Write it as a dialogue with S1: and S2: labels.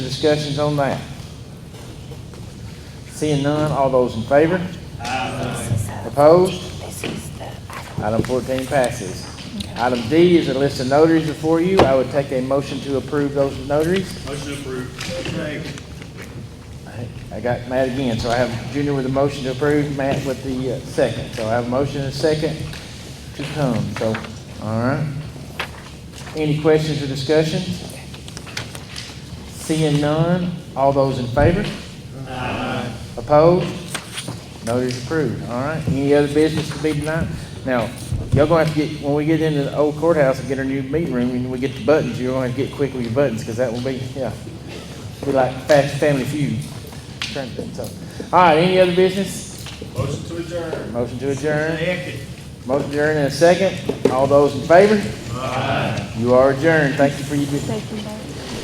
S1: Discussions on that? Seeing none, all those in favor? Opposed?
S2: This is the,
S1: Item fourteen passes. Item D is a list of notaries before you. I would take a motion to approve those notaries.
S3: Motion approved.
S1: I- I got Matt again, so I have Junior with a motion to approve, Matt with the uh, second. So I have a motion and a second to come, so, all right. Any questions or discussion? Seeing none, all those in favor? Opposed? Notice approved, all right. Any other business to be tonight? Now, y'all gonna have to get, when we get into the old courthouse and get our new meeting room, and we get the buttons, you're gonna have to get quick with your buttons, because that will be, yeah. Be like Fast Family Feud. Trying to think, so. All right, any other business?
S3: Motion to adjourn.
S1: Motion to adjourn.
S3: Second.
S1: Motion to adjourn in a second. All those in favor? You are adjourned. Thank you for your.
S2: thank you, Mayor.